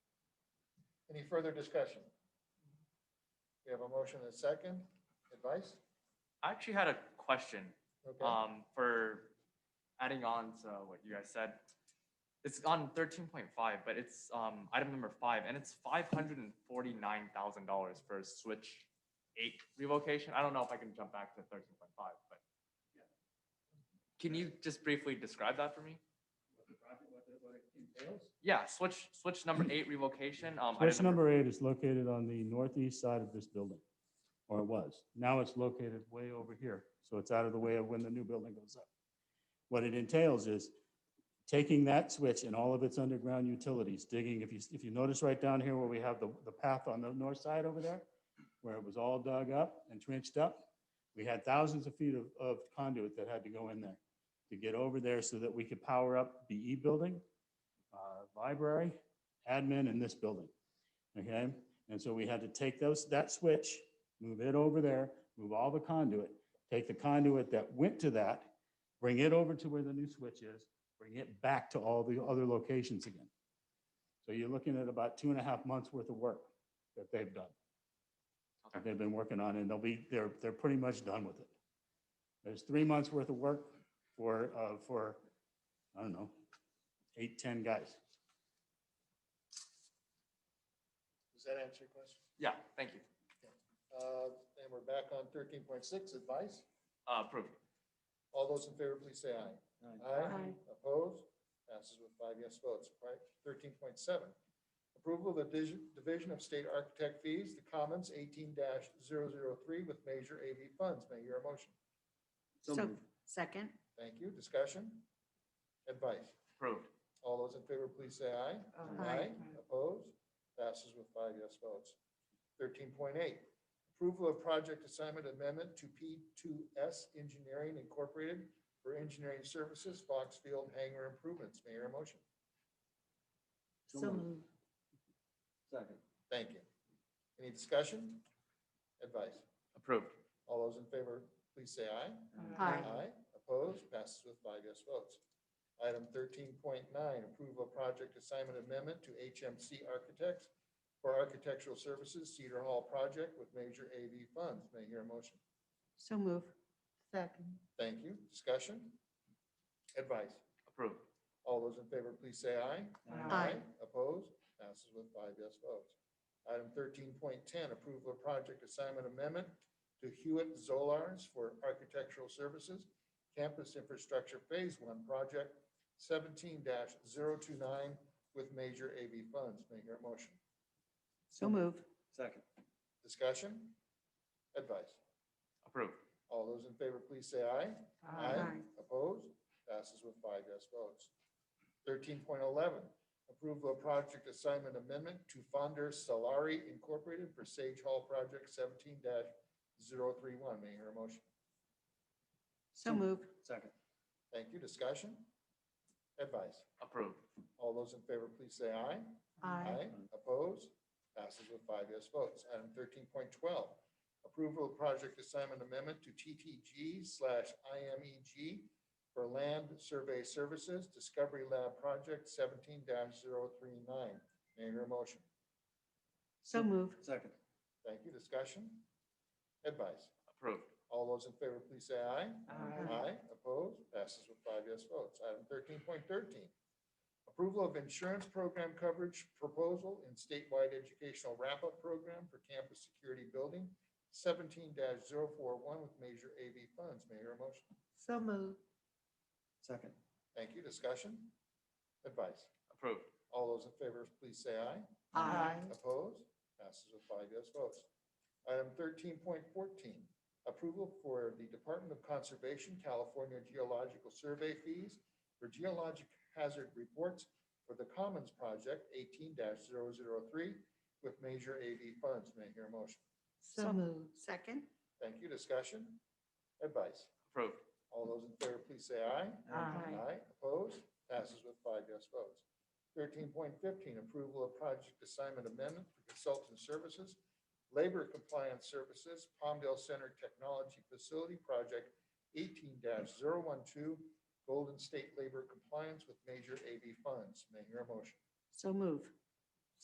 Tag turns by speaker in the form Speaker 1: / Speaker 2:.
Speaker 1: Any further discussion? We have a motion and a second. Advice?
Speaker 2: I actually had a question
Speaker 1: Okay,
Speaker 2: um, for adding on to what you guys said. It's on thirteen point five, but it's um, item number five, and it's five hundred and forty nine thousand dollars for a Switch eight revocation. I don't know if I can jump back to thirteen point five, but can you just briefly describe that for me? Yeah, Switch Switch number eight revocation. Um, item
Speaker 3: Switch number eight is located on the northeast side of this building, or it was. Now it's located way over here, so it's out of the way of when the new building goes up. What it entails is taking that switch and all of its underground utilities, digging, if you, if you notice right down here where we have the, the path on the north side over there, where it was all dug up and trenched up, we had thousands of feet of, of conduit that had to go in there to get over there so that we could power up the E building, uh, library, admin, and this building. Okay, and so we had to take those, that switch, move it over there, move all the conduit, take the conduit that went to that, bring it over to where the new switch is, bring it back to all the other locations again. So you're looking at about two and a half months worth of work that they've done. That they've been working on, and they'll be, they're, they're pretty much done with it. There's three months worth of work for, uh, for, I don't know, eight, 10 guys.
Speaker 1: does that answer your question?
Speaker 2: Yeah, thank you.
Speaker 1: Uh, And we're back on thirteen point six, advice.
Speaker 2: Uh, approved.
Speaker 1: All those in favor, please say aye.
Speaker 4: Aye.
Speaker 1: Opposed? Passes with five yes votes. Right, thirteen point seven. Approval of the dis- Division of State Architect Fees, the Commons eighteen 3 with major AV funds. May I hear a motion?
Speaker 4: So, second,
Speaker 1: Thank you. Discussion? Advice?
Speaker 2: Approved.
Speaker 1: All those in favor, please say aye.
Speaker 4: Aye.
Speaker 1: Opposed? Passes with five yes votes. Thirteen point eight, approval of project assignment amendment to P two S Engineering Incorporated for engineering services, Foxfield hangar improvements. May I hear a motion?
Speaker 4: so moved.
Speaker 5: Second.
Speaker 1: Thank you. Any discussion? Advice?
Speaker 2: Approved.
Speaker 1: All those in favor, please say aye.
Speaker 4: Aye.
Speaker 1: Opposed? Passes with five yes votes. Item thirteen point nine, approval of project assignment amendment to HMC Architects for architectural services Cedar Hall project with major AV funds. May I hear a motion?
Speaker 4: So moved. Second.
Speaker 1: Thank you. Discussion? Advice?
Speaker 2: Approved.
Speaker 1: All those in favor, please say aye.
Speaker 4: Aye.
Speaker 1: Opposed? Passes with five yes votes. Item thirteen point ten, approval of project assignment amendment to Hewitt Zolars for architectural services, campus infrastructure phase one project seventeen 29 with major AV funds. May I hear a motion?
Speaker 4: So moved.
Speaker 5: Second.
Speaker 1: Discussion? Advice?
Speaker 2: Approved.
Speaker 1: All those in favor, please say aye.
Speaker 4: Aye.
Speaker 1: Opposed? Passes with five yes votes. Thirteen point eleven, approval of project assignment amendment to Fonder Solari Incorporated for Sage Hall Project seventeen 31 May I hear a motion?
Speaker 4: So moved.
Speaker 5: Second.
Speaker 1: Thank you. Discussion? Advice?
Speaker 2: Approved.
Speaker 1: All those in favor, please say aye. Opposed? Passes with five yes votes. Item thirteen point twelve, approval of project assignment amendment to TTG slash IMEG for land survey services, Discovery Lab Project seventeen 39 May I hear a motion?
Speaker 4: So moved.
Speaker 5: Second.
Speaker 1: Thank you. Discussion? Advice?
Speaker 2: Approved.
Speaker 1: All those in favor, please say aye. Aye,
Speaker 4: Aye.
Speaker 1: opposed, passes with five yes votes. Item thirteen point thirteen. Approval of insurance program coverage proposal in statewide educational wrap-up program for campus security building seventeen 41 with major AV funds. May I hear a motion?
Speaker 4: So moved.
Speaker 5: Second.
Speaker 1: Thank you. Discussion? Advice?
Speaker 2: Approved.
Speaker 1: All those in favor, please say aye.
Speaker 4: Aye.
Speaker 1: Opposed? Passes with five yes votes. Item thirteen point fourteen, approval for the Department of Conservation California Geological Survey fees for geologic hazard reports for the Commons Project eighteen 3 with major AV funds. May I hear a motion?
Speaker 4: So moved. Second.
Speaker 1: Thank you. Discussion? Advice?
Speaker 2: Approved.
Speaker 1: All those in favor, please say aye.
Speaker 4: Aye.
Speaker 1: Aye, opposed, passes with five yes votes. Thirteen point fifteen, approval of project assignment amendment for consultant services, labor compliance services, Palmdale Center Technology Facility Project eighteen 12 Golden State Labor Compliance with Major AV Funds. May I hear a motion?
Speaker 4: So moved.